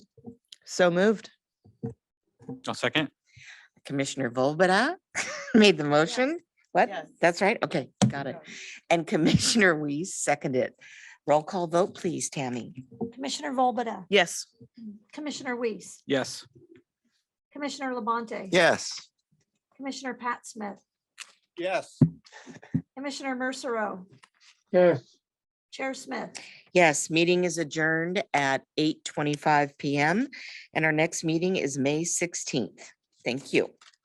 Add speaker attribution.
Speaker 1: So moved.
Speaker 2: I'll second.
Speaker 1: Commissioner Volbada made the motion. What?
Speaker 3: Yes.
Speaker 1: That's right. Okay, got it. And Commissioner Weiss seconded. Roll call vote, please, Tammy.
Speaker 4: Commissioner Volbada,
Speaker 1: Yes.
Speaker 4: Commissioner Weiss,
Speaker 2: Yes.
Speaker 4: Commissioner Labonte.
Speaker 5: Yes.
Speaker 4: Commissioner Pat Smith,
Speaker 5: Yes.
Speaker 4: Commissioner Mercero,
Speaker 6: yes.
Speaker 4: Chair Smith.
Speaker 1: Yes, meeting is adjourned at eight twenty-five PM and our next meeting is May sixteenth. Thank you.